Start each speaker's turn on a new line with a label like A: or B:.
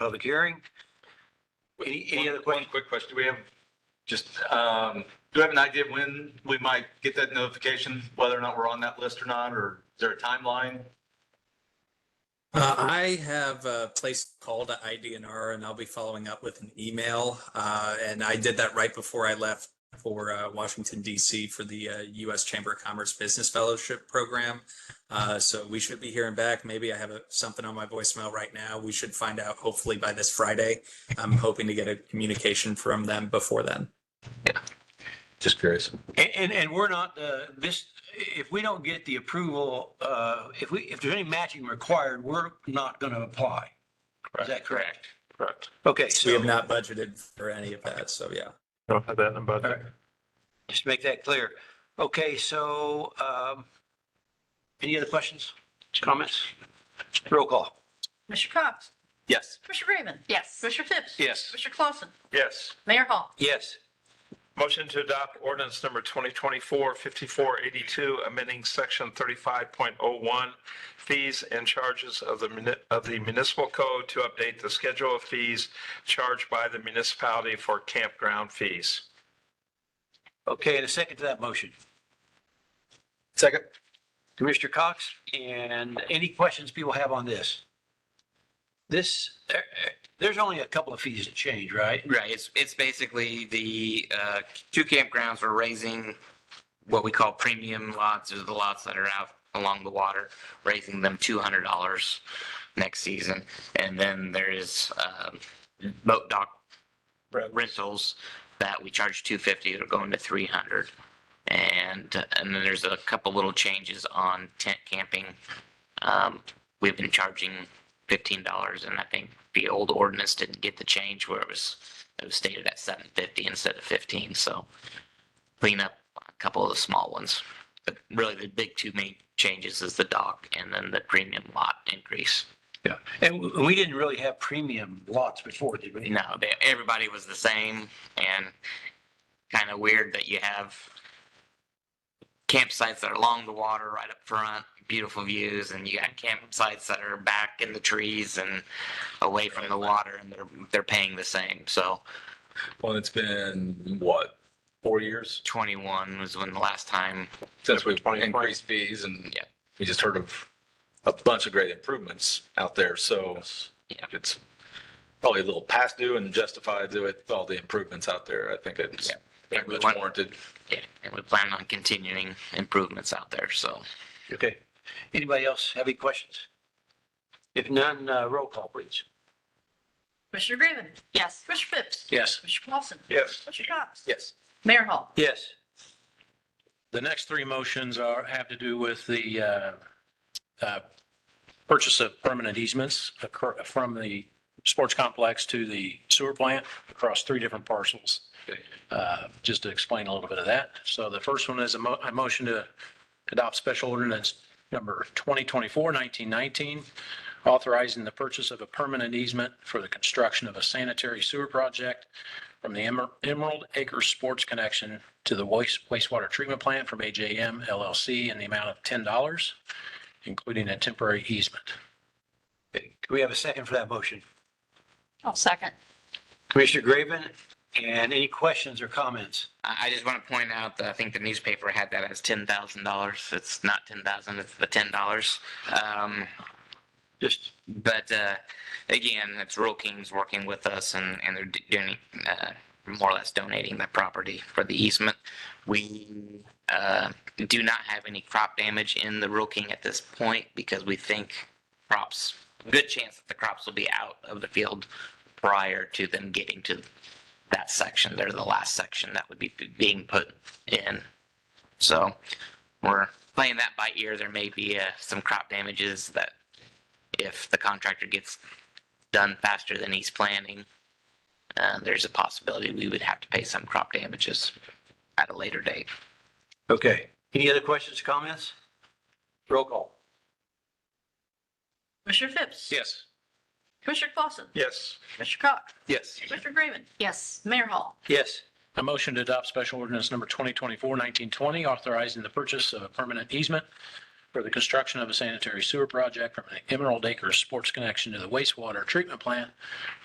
A: public hearing. Any, any other
B: One
A: questions?
B: quick question. Do we have, just, um, do we have an idea when we might get that notification, whether or not we're on that list or not, or is there a timeline?
C: Uh, I have a place called IDNR and I'll be following up with an email. Uh, and I did that right before I left for uh, Washington DC for the uh, US Chamber of Commerce Business Fellowship Program. Uh, so we should be hearing back. Maybe I have a, something on my voicemail right now. We should find out hopefully by this Friday. I'm hoping to get a communication from them before then.
B: Just curious.
A: And, and, and we're not, uh, this, if we don't get the approval, uh, if we, if there's any matching required, we're not going to apply. Is that correct?
D: Correct.
A: Okay,
C: We
A: so
C: have not budgeted for any of that. So yeah.
D: Don't have that in the budget.
A: Alright. just make that clear. Okay, so, um, any other questions, comments? Roll call.
E: Mr. Cox?
B: Yes.
E: Mr. Grayman?
F: Yes.
E: Mr. Phipps?
A: Yes.
E: Mr. Clausen?
D: Yes.
E: Mayor Hall?
A: Yes.
D: Motion to adopt ordinance number 2024-5482, amending section 35.01, fees and charges of the muni- of the municipal code to update the schedule of fees charged by the municipality for campground fees.
A: Okay, and a second to that motion.
B: Second.
A: Commissioner Cox, and any questions people have on this? This, eh, eh, there's only a couple of fees that change, right?
F: Right, it's, it's basically the, uh, two campgrounds are raising what we call premium lots, or the lots that are out along the water, raising them two hundred dollars next season. And then there is, um, boat dock rentals that we charge two fifty, they're going to three hundred. And, and then there's a couple little changes on tent camping. Um, we've been charging fifteen dollars and I think the old ordinance didn't get the change where it was, it was stated at seven fifty instead of fifteen, so clean up a couple of the small ones. But really the big two main changes is the dock and then the premium lot increase.
A: Yeah. And w- we didn't really have premium lots before, did we?
F: No, they, everybody was the same and kind of weird that you have campsites that are along the water right up front, beautiful views, and you got campsites that are back in the trees and away from the water and they're, they're paying the same. So
B: Well, it's been, what, four years
F: 21 was when the last time,
B: since we've
D: 2020.
B: increased fees and
F: Yeah.
B: we just heard of a bunch of great improvements out there, so
F: Yeah.
B: it's probably a little past due and justified with all the improvements out there. I think it's
F: Yeah.
B: very
F: We
B: much
F: want-
B: warranted.
F: yeah, and we plan on continuing improvements out there. So
A: Okay. Anybody else have any questions? If none, uh, roll call, please.
E: Mr. Grayman?
F: yes,
E: Mr. Phipps?
A: Yes.
E: Mr. Clausen?
D: Yes.
E: Mr. Cox?
B: Yes.
E: Mayor Hall?
A: Yes.
G: The next three motions are, have to do with the uh, uh, purchase of permanent easements occur- from the sports complex to the sewer plant across three different parcels. Uh, Just to explain a little bit of that. So the first one is a mo- a motion to adopt special ordinance number 2024-1919, authorizing the purchase of a permanent easement for the construction of a sanitary sewer project from the Emer- Emerald Acres Sports Connection to the waste- wastewater treatment plant from AJM LLC in the amount of $10, including a temporary easement.
A: Okay. Do we have a second for that motion?
E: I'll second.
A: Commissioner Graven, and any questions or comments?
F: I, I just want to point out that I think the newspaper had that as $10,000. It's not 10,000, it's the $10. Um,
A: Just,
F: but uh, again, it's Rural Kings working with us, and and they're d- doing uh, more or less donating the property for the easement. We uh, do not have any crop damage in the Rural King at this point because we think crops, good chance that the crops will be out of the field prior to them getting to that section. They're the last section that would be being put in. So we're playing that by ear. There may be uh, some crop damages that if the contractor gets done faster than he's planning, uh, there's a possibility we would have to pay some crop damages at a later date.
A: okay. Any other questions, comments? Roll call.
E: Mr. Phipps?
D: Yes.
E: Mr. Clausen?
D: Yes.
E: Mr. Cox?
B: Yes.
E: Mr. Grayman? Yes. Mayor Hall?
A: Yes.
G: A motion to adopt special ordinance number 2024-1920, authorizing the purchase of a permanent easement for the construction of a sanitary sewer project from an Emerald Acres Sports Connection to the wastewater treatment plant